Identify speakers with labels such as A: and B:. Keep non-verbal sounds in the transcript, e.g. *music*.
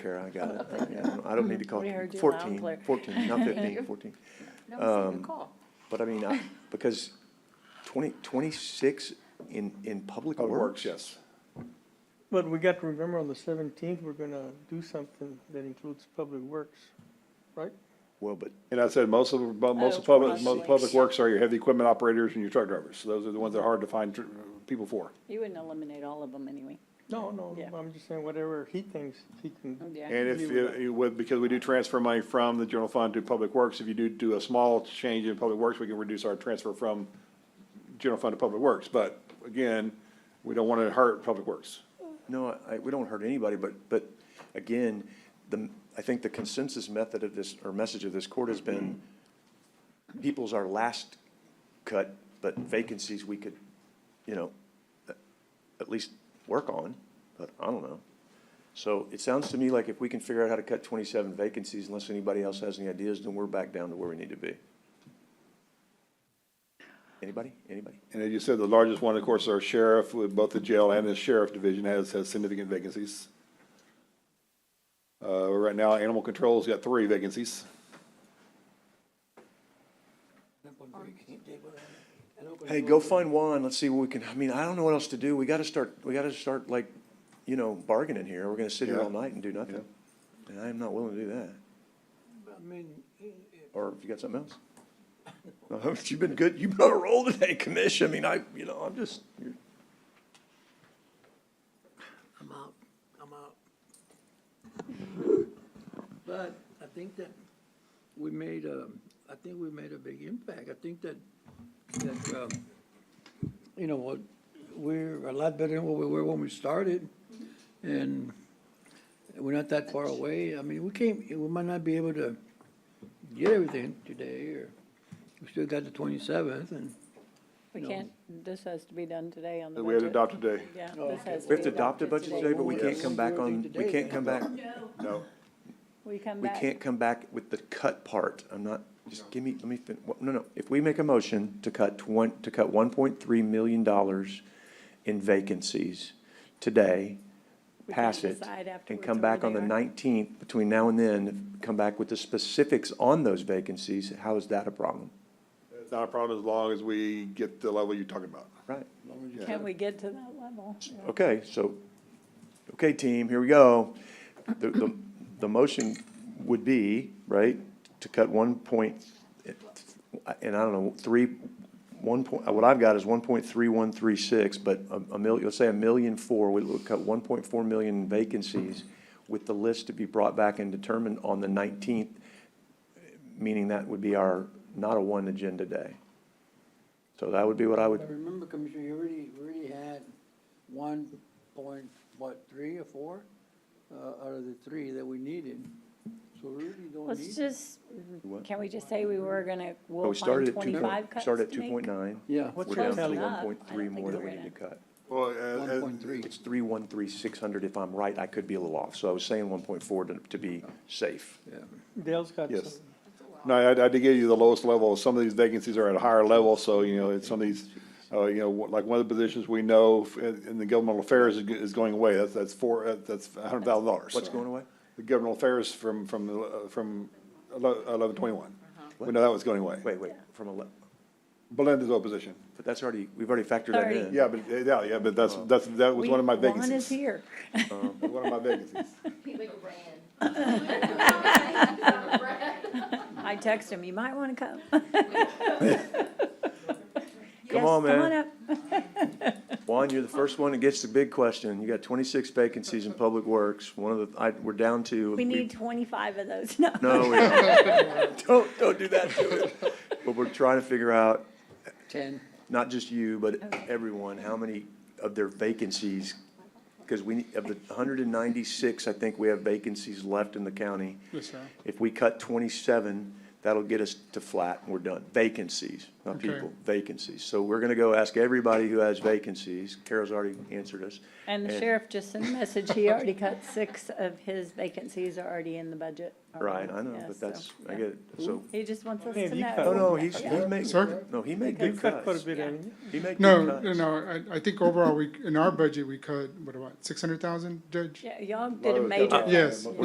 A: Kara, I got it. Yeah, I don't need to call
B: We
A: it
B: heard you loud
A: 14,
B: and clear.
A: 14, not 15, 14.
B: No, it's a
A: Um,
B: good call.
A: But I mean, I- because 20, 26 in, in public works?
C: yes.
D: But we got to remember on the seventeenth, we're gonna do something that includes public works, right?
A: Well, but,
C: And I said, most of, bu- most of
B: Oh,
C: public, most
B: public
C: public
B: works.
C: works are your heavy equipment operators and your truck drivers. So Those are the ones that are hard to find tr- people for.
B: You wouldn't eliminate all of them anyway.
D: No, no,
B: Yeah.
D: I'm just saying whatever he thinks he can,
B: Yeah.
C: And if, you- you would because we do transfer money from the general fund to public works, if you do do a small change in public works, we can reduce our transfer from general fund to public works. But again, we don't want to hurt public works.
A: no, I, we don't hurt anybody, but, but again, the, I think the consensus method of this, or message of this court has been, people's our last cut, but vacancies we could, you know, at- at least work on, but I don't know. So it sounds to me like if we can figure out how to cut twenty-seven vacancies, unless anybody else has any ideas, then we're back down to where we need to be. Anybody? Anybody?
C: And as you said, the largest one, of course, our sheriff, with both the jail and the sheriff division has, has significant vacancies. Uh, right now, animal control's got three vacancies.
A: Hey, go find Juan, let's see what we can, I mean, I don't know what else to do, we gotta start, we gotta start like, you know, bargaining here, we're gonna sit here all
C: Yeah.
A: night and do nothing. And I am not willing to do that,
E: I mean,
A: or if you got something else? No, *laughs* You've been good, you've been on a roll today, commission, I mean, I, you know, I'm just, you're-
E: I'm out, I'm out. But I think that we made a, I think we made a big impact. I think that, that, um, you know, what, we're a lot better than what we were when we started. And we're not that far away. I mean, we came, we might not be able to get everything today or we still got the twenty-seventh and,
B: We
E: No.
B: can't, this has to be done today on the budget.
C: We had adopted today.
B: Yeah,
E: Oh,
B: this
E: okay.
B: has to
A: we have
B: be
A: to adopt a
B: adopted
A: budget today, but we can't
E: Yes.
A: come back on, we can't come back,
C: No.
B: We come
A: we
B: back.
A: can't come back with the cut part, I'm not, just give me, let me fin, wha- no, no, if we make a motion to cut twen, to cut one point three million dollars in vacancies today,
B: We can't
A: pass it,
B: decide
A: and
B: afterwards
A: come
B: where
A: back on
B: they
A: the
B: are.
A: nineteenth, between now and then, come back with the specifics on those vacancies, how is that a problem?
C: It's not a problem as long as we get the level you're talking about.
A: Right,
E: as long as you
B: Can we get to that level?
A: okay, so, okay, team, here we go. The, the, the motion would be, right, to cut one point, and I don't know, three, one point, what I've got is one point three one three six, but a, a million, let's say a million four, we would cut one point four million vacancies with the list to be brought back and determined on the nineteenth, meaning that would be our, not a one agenda day. So that would be what I
E: I
A: would,
E: remember, Commissioner, you already, you already had one point, what, three or four? Uh, out of the three that we needed, so we really don't
B: Let's
E: need.
B: just,
A: What?
B: can we just say we were gonna,
A: Well,
B: we'll
A: Oh, we started
B: find
A: at two
B: twenty-five
A: point,
B: cuts
A: started at
B: to
A: two
B: make?
A: point nine.
E: Yeah,
D: What's
A: We're
D: your
A: down to
D: tally?
A: one point three more that we need to cut.
C: Well,
E: one point three.
A: It's three one three six hundred, if I'm right, I could be a little off, so I was saying one point four to, to be safe.
D: Dale's got
C: Yes.
D: some.
C: No, I, I did give you the lowest level. Some of these vacancies are at a higher level, so, you know, it's some of these, uh, you know, like one of the positions we know in, in the governmental affairs is, go- is going away. That's, that's four, uh, that's a hundred thousand dollars.
A: What's going away?
C: The governmental affairs from, from, uh, from eleven twenty-one.
B: Uh-huh.
C: We know that was going away.
A: Wait, wait, from ele,
C: Belinda's opposition.
A: but that's already, we've already factored that in.
B: Sorry.
C: Yeah, but, uh, yeah, yeah, but that's, that's, that was one of my
B: We- Juan is
C: vacancies.
B: here.
C: One of my vacancies.
B: I text him, you might
A: *laughs*
B: wanna come. *laughs*
A: Come
B: Yes,
A: on,
B: Come on
A: man.
B: up.
A: Juan, you're the first one that gets the big question. You got twenty-six vacancies
B: *laughs*
A: in public works, one of the, I, we're down to.
B: We need twenty-five of those, *laughs* no.
A: No, we don't.
B: *laughs*
A: Don't, *laughs* don't do that to it. But we're trying to figure out
E: Ten,
A: not just you, but everyone, how many of their vacancies? Because we, of the hundred and ninety-six, I think we have vacancies left in the county.
D: Yes, sir.
A: If we cut twenty-seven, that'll get us to flat, and we're done. Vacancies, not
D: Okay.
A: people, vacancies. So we're gonna go ask everybody who has vacancies. Carol's already answered us.
B: And the
A: And-
B: sheriff just sent a message, he already cut six of his vacancies are already in the budget. already.
A: Right, I know,
B: Yeah,
A: but
B: so,
A: that's, I
B: yeah.
A: get it, so.
B: He just wants us
D: Man,
B: to
D: you
B: know.
D: cut-
A: No, no, he's, he
B: Yeah.
A: made,
F: Sir?
A: no, he made
D: You
A: good
D: cut quite a
A: cuts.
D: bit, haven't you?
A: He made
F: No,
A: good
F: no,
A: cuts.
F: no, I, I think overall, we, in our budget, we cut, what about, six hundred thousand, Judge?
B: Yeah, y'all did a
C: Low
B: major.
C: down.
F: Yes.